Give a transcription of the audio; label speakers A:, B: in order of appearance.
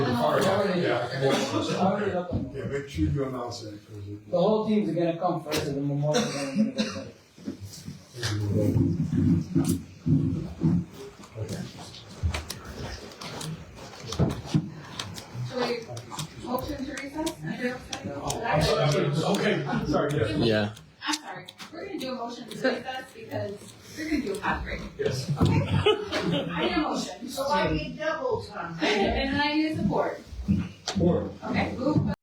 A: already. It's already up and
B: Yeah,
A: running.
B: make sure you announce that, because
A: The whole teams are gonna come first to the memorial. and then we're gonna go back.
B: it.
C: Should we motion to recess?
D: I'm sorry, I'm
C: I'm
D: sorry, okay, sorry, yes,
E: Yeah.
C: sorry, we're gonna do a motion to recess because we're gonna do a hot break.
D: yes.
C: I need a motion.
F: So I need double time.
C: And then I need support.
D: Or-
C: Okay, move